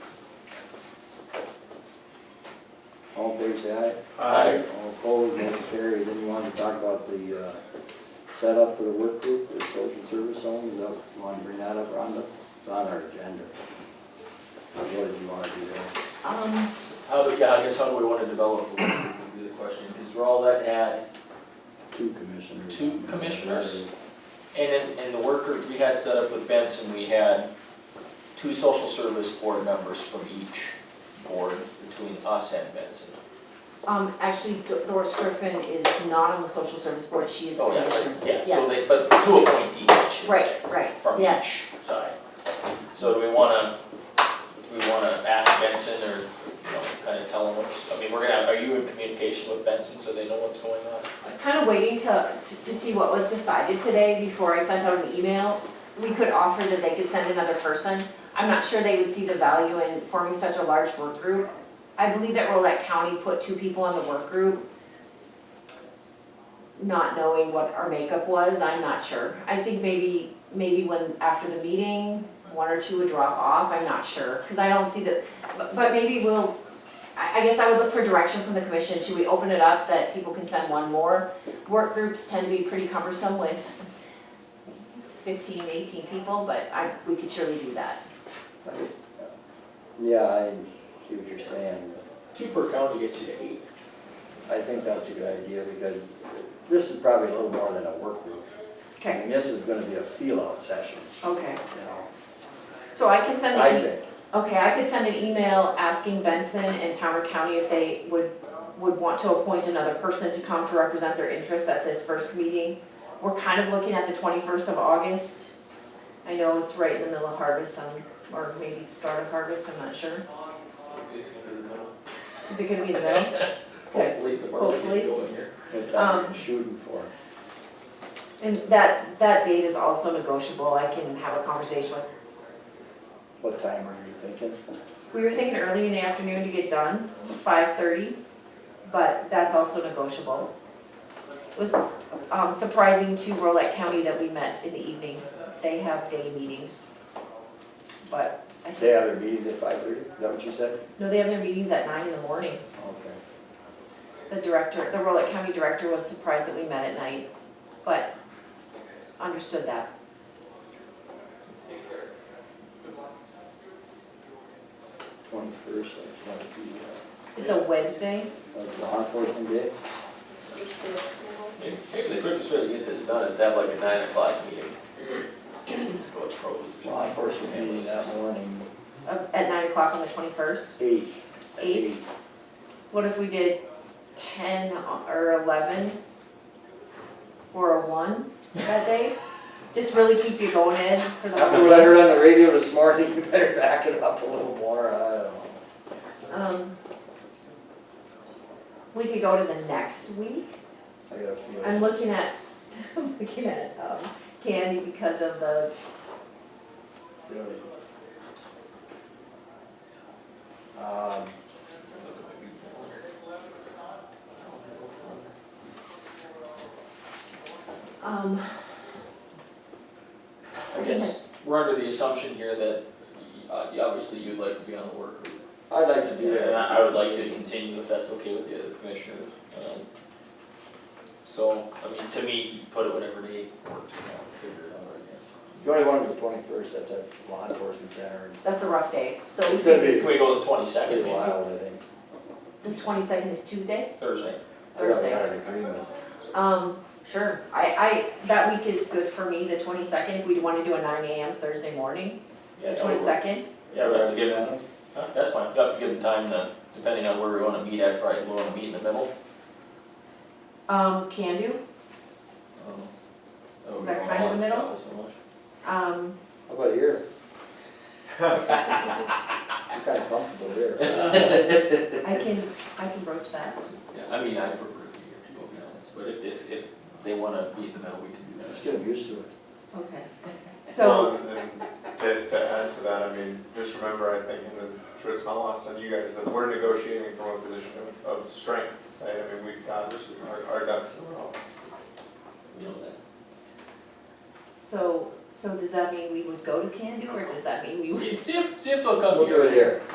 favor, say aye. Aye. All opposed, motion carries. Then you wanted to talk about the uh, setup for the work group, the social service zone, is that, you want to bring that up, Rhonda? It's on our agenda. What did you want to do there? Um, How, do- yeah, I guess how do we want to develop the work group would be the question, because Rowlett had, Two commissioners. Two commissioners? and in, in the work group we had set up with Benson, we had two social service board members from each board between us and Benson. um, actually Do- Doris Griffin is not on the social service board, she is a Oh, yeah, commissioner. right, yeah, so they, but two appointees, I should say. Right, right, from yeah. each side. So do we wanna, do we wanna ask Benson or, you know, kinda tell him what's, I mean, we're gonna, are you in communication with Benson so they know what's going on? I was kind of waiting to, to to see what was decided today before I sent out an email. We could offer that they could send another person. I'm not sure they would see the value in forming such a large work group. I believe that Rolette County put two people on the work group, not knowing what our makeup was, I'm not sure. I think maybe, maybe when, after the meeting, one or two would drop off, I'm not sure. Because I don't see the, but, but maybe we'll, I, I guess I would look for direction from the commission. Should we open it up that people can send one more? work groups tend to be pretty cumbersome with 15, 18 people, but I, we could surely do that. Yeah, I see what you're saying. Two per county gets you to eight. I think that's a good idea because this is probably a little more than a work group. And this is gonna be a feel-out session, Okay. you know, So I can send, I an think. e- okay, I could send an email asking Benson and Towner County if they would, would want to appoint another person to come to represent their interests at this first meeting. We're kind of looking at the 21st of August. I know it's right in the middle of harvest, um, or maybe the start of harvest, I'm not sure. It's gonna be the middle. Is it gonna be the middle? Okay. Hopefully, the market Hopefully. is going here. That's what Um, I'm shooting for. And that, that date is also negotiable, I can have a conversation with. What time are you thinking? We were thinking early in the afternoon to get done, five thirty, but that's also negotiable. It was um, surprising to Rolette County that we met in the evening, they have day meetings. But I They said, have their meetings at five thirty, is that what you said? no, they have their meetings at nine in the morning. Okay. The director, the Rolette County director was surprised that we met at night, but understood that. Twenty-first, that's what the, It's a Wednesday, uh, that's law enforcement day. Maybe, maybe the quickest way to get this done is to have like a nine o'clock meeting. Just go with pros. or Law something. enforcement meeting that morning, uh, at nine o'clock on the twenty-first. eight. at Eight? What if we did ten or eleven or a one that day? Just really keep you going in for the After whole what I day. heard on the radio this morning, you better back it up a little more, I don't know. Um, We could go to the next week. I got a feeling. I'm looking at, I'm looking at um, Candy because of the, Really. Um, um, I guess we're under the assumption here that, uh, obviously you'd like to be on the work group. I'd like to do Yeah, that. and I I would like to continue if that's okay with the other commissioners. um, So, I mean, to me, put it whatever day works, and I'll figure it out, I You only wanted the twenty-first, that's at law enforcement center. that's a rough day. So we It's gonna could, guess. be Can we go to the pretty twenty-second, maybe, wild, I think. the twenty-second is Tuesday, Thursday? I Thursday. got an agreement. Um, sure, I, I, that week is good for me, the twenty-second, if we wanna do a nine AM Thursday morning, Yeah, the that would work. twenty-second. Yeah, we have to give them, huh, that's fine, you have to give them time to, depending on where we wanna meet at, probably we wanna meet in the middle. Um, can do, um, would Is that be kind of the my- middle? not so much. um, How about here? I'm kinda comfortable here. I can, I can broach that. Yeah, I mean, I prefer to be here, to be honest, but if, if, if they wanna meet in the middle, we can do that. Just get used to it. Okay. Well, So, And to, to add to that, I mean, just remember, I think, and I'm sure it's not lost on you guys, that we're negotiating from a position of, of strength. right? I mean, we've got, our, our ducks in a row. You know that. so, so does that mean we would go to Can Do, or does that mean we would? See, see if, see if they'll come We'll here. do it here.